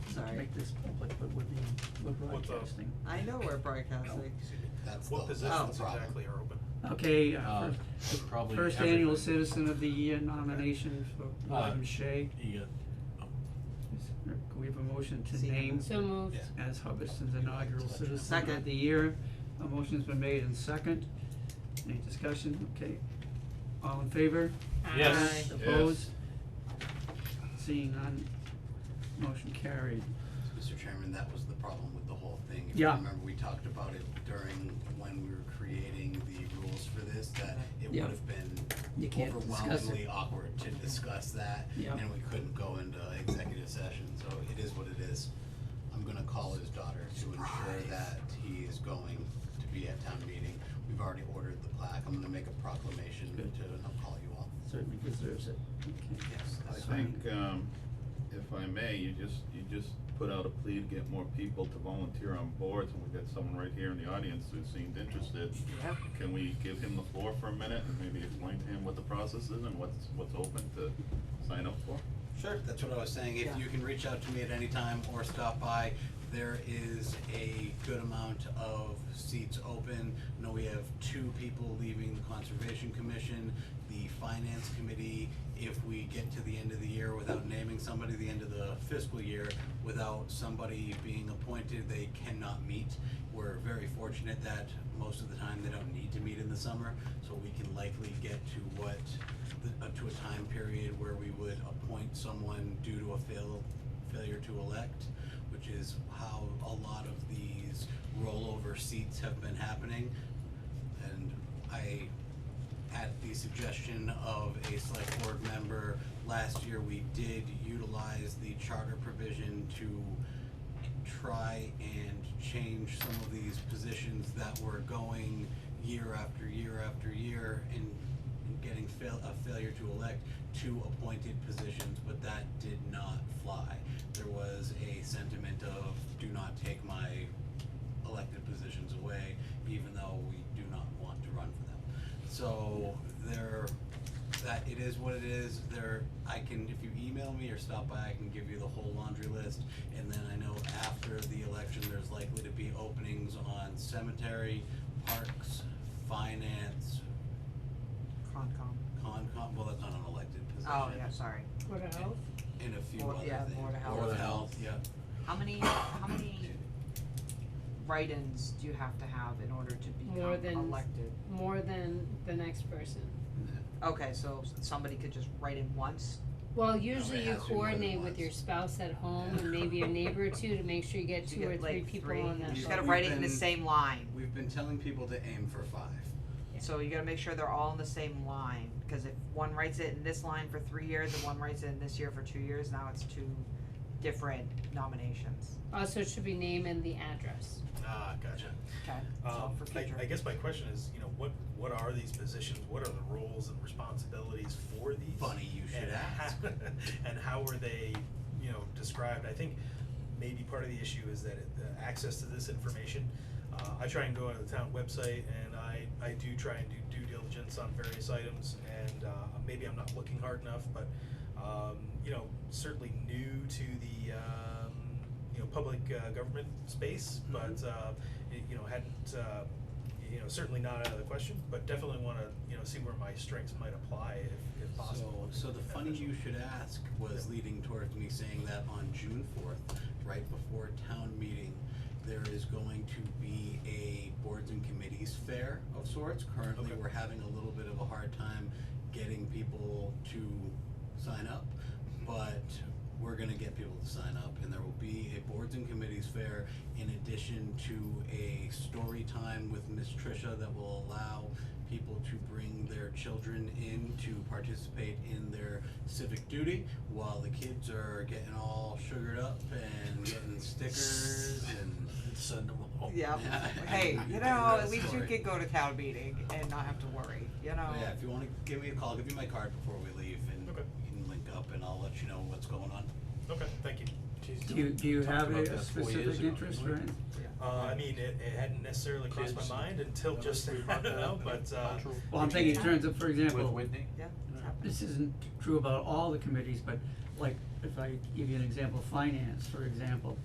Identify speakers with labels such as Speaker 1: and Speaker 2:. Speaker 1: make this public, but we're being, we're
Speaker 2: What's up?
Speaker 1: broadcasting.
Speaker 3: I know we're broadcasting.
Speaker 2: Excuse me.
Speaker 4: That's
Speaker 2: What
Speaker 4: the- that's the
Speaker 2: positions
Speaker 4: problem.
Speaker 2: exactly are open?
Speaker 1: Okay,
Speaker 5: Uh,
Speaker 1: uh, first,
Speaker 5: probably
Speaker 1: first annual
Speaker 5: everything.
Speaker 1: Citizen of the Year nomination for
Speaker 5: Uh,
Speaker 1: William Shea.
Speaker 5: Yeah.
Speaker 1: Is- uh, can we have a motion to
Speaker 3: See.
Speaker 1: name
Speaker 6: So moved.
Speaker 4: Yeah.
Speaker 1: as Hubbardston's inaugural Citizen of
Speaker 3: Second.
Speaker 1: the Year? A motion's been made and second. Any discussion? Okay. All in favor?
Speaker 5: Yes.
Speaker 1: Aye. Opposed? Seeing none, motion carried.
Speaker 4: Mr. Chairman, that was the problem with the whole thing.
Speaker 1: Yeah.
Speaker 4: If you remember, we talked about it during when we were creating the rules for this, that it would
Speaker 1: Yeah.
Speaker 4: have been
Speaker 1: You can't discuss it.
Speaker 4: overwhelmingly awkward to discuss that,
Speaker 1: Yeah.
Speaker 4: and we couldn't go into executive session, so it is what it is. I'm gonna call his daughter to ensure that he is going to be at town meeting. We've already ordered the plaque. I'm gonna make a proclamation to,
Speaker 1: Good.
Speaker 4: and I'll call you all.
Speaker 1: Certainly deserves it. Okay.
Speaker 4: Yes.
Speaker 7: I think, um, if I may, you just, you just put out a plea to get more people to volunteer on boards, and we've got someone right here in the audience who seemed interested.
Speaker 3: Yep.
Speaker 7: Can we give him the floor for a minute and maybe explain to him what the process is and what's, what's open to sign up for?
Speaker 4: Sure, that's what I was saying, if
Speaker 3: Yeah.
Speaker 4: you can reach out to me at any time or stop by, there is a good amount of seats open. I know we have two people leaving the Conservation Commission, the Finance Committee, if we get to the end of the year without naming somebody, the end of the fiscal year, without somebody being appointed, they cannot meet. We're very fortunate that most of the time they don't need to meet in the summer, so we can likely get to what, the- up to a time period where we would appoint someone due to a fail, failure to elect, which is how a lot of these rollover seats have been happening. And I, at the suggestion of a select board member, last year we did utilize the charter provision to try and change some of these positions that were going year after year after year and and getting fail, a failure to elect two appointed positions, but that did not fly. There was a sentiment of do not take my elected positions away, even though we do not want to run for them. So there, that, it is what it is, there, I can, if you email me or stop by, I can give you the whole laundry list. And then I know after the election, there's likely to be openings on cemetery, parks, finance,
Speaker 3: Concom.
Speaker 4: Concom, well, that's not an elected position.
Speaker 3: Oh, yeah, sorry.
Speaker 6: What else?
Speaker 4: And a few
Speaker 3: Board-
Speaker 4: other things.
Speaker 3: yeah, Board of Health.
Speaker 4: Board of Health, yeah.
Speaker 3: How many, how many write-ins do you have to have in order to
Speaker 6: More
Speaker 3: become
Speaker 6: than-
Speaker 3: elected?
Speaker 6: More than the next person.
Speaker 3: Okay, so somebody could just write in once?
Speaker 6: Well, usually
Speaker 4: it
Speaker 6: you
Speaker 4: has to be more than
Speaker 6: coordinate with
Speaker 4: once.
Speaker 6: your spouse at home and maybe a neighbor or two to make sure you get
Speaker 3: You
Speaker 6: two or
Speaker 3: get,
Speaker 6: three
Speaker 3: like,
Speaker 6: people
Speaker 3: three.
Speaker 6: on that
Speaker 3: You
Speaker 6: boat.
Speaker 3: just gotta
Speaker 4: We've
Speaker 3: write it in the
Speaker 4: been-
Speaker 3: same line.
Speaker 4: We've been telling people to aim for five.
Speaker 6: Yeah.
Speaker 3: So you gotta make sure they're all in the same line, cause if one writes it in this line for three years and one writes it in this year for two years, now it's two different nominations.
Speaker 6: Also, it should be name and the address.
Speaker 2: Ah, gotcha.
Speaker 3: Okay, so
Speaker 2: Um,
Speaker 3: for
Speaker 2: I,
Speaker 3: future.
Speaker 2: I guess my question is, you know, what, what are these positions, what are the roles and responsibilities for these?
Speaker 4: Funny you should
Speaker 2: And how-
Speaker 4: ask.
Speaker 2: And how are they, you know, described? I think maybe part of the issue is that it- the access to this information, uh, I try and go on the town website and I, I do try and do due diligence on various items and, uh, maybe I'm not looking hard enough, but, um, you know, certainly new to the, um, you know, public, uh, government space,
Speaker 4: Mm-hmm.
Speaker 2: but, uh, y- you know, hadn't, uh, you know, certainly not out of the question, but definitely wanna, you know, see where my strengths might apply if, if possible.
Speaker 4: So, so the funny
Speaker 2: Beneficial.
Speaker 4: you should ask was leading towards me saying that on June fourth, right before town meeting, there is going to be a boards and committees fair of sorts. Currently,
Speaker 2: Okay.
Speaker 4: we're having a little bit of a hard time getting people to sign up, but we're gonna get people to sign up and there will be a boards and committees fair in addition to a story time with Miss Trisha that will allow people to bring their children in to participate in their civic duty while the kids are getting all sugared up and getting stickers and
Speaker 5: Send them home.
Speaker 3: Yep,
Speaker 4: Yeah.
Speaker 3: hey, you know,
Speaker 4: That's
Speaker 3: at least you
Speaker 4: sorry.
Speaker 3: could go to town meeting and not have to worry, you know?
Speaker 4: But yeah, if you wanna give me a call, I'll give you my card before we leave and
Speaker 2: Okay.
Speaker 4: we can link up and I'll let you know what's going on.
Speaker 2: Okay, thank you.
Speaker 5: Jeez,
Speaker 1: Do you, do you
Speaker 5: talked
Speaker 1: have
Speaker 5: about
Speaker 1: a
Speaker 5: that four years
Speaker 1: specific
Speaker 5: ago,
Speaker 1: interest,
Speaker 5: didn't we?
Speaker 1: right?
Speaker 2: Uh, I mean, it, it hadn't necessarily crossed my
Speaker 5: Kids.
Speaker 2: mind until
Speaker 5: Remember
Speaker 2: just,
Speaker 5: we
Speaker 2: I
Speaker 5: brought
Speaker 2: don't
Speaker 5: that up
Speaker 2: know,
Speaker 5: in
Speaker 2: but, uh,
Speaker 5: cultural-
Speaker 1: Well, I'm thinking in terms of, for
Speaker 5: With
Speaker 1: example,
Speaker 5: Whitney?
Speaker 3: Yeah, it's
Speaker 5: Yeah.
Speaker 3: happening.
Speaker 1: this isn't true about all the committees, but like, if I give you an example, finance, for example,